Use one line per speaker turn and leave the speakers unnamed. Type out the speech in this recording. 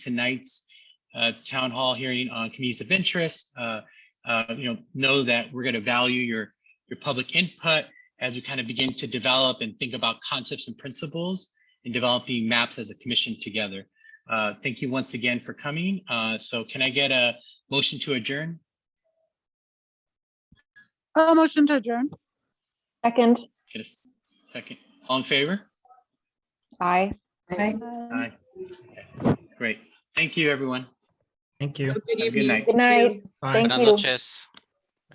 tonight's uh, town hall hearing on communities of interest, uh, uh, you know, know that we're going to value your, your public input as we kind of begin to develop and think about concepts and principles and developing maps as a commission together. Uh, Thank you once again for coming. Uh, So can I get a motion to adjourn?
Oh, motion to adjourn.
Second.
Get a s- second. All in favor?
Aye.
Aye. Great. Thank you, everyone.
Thank you.
Have a Good night.
Good night.
Bye.
Thank
Buenas
you.
noches.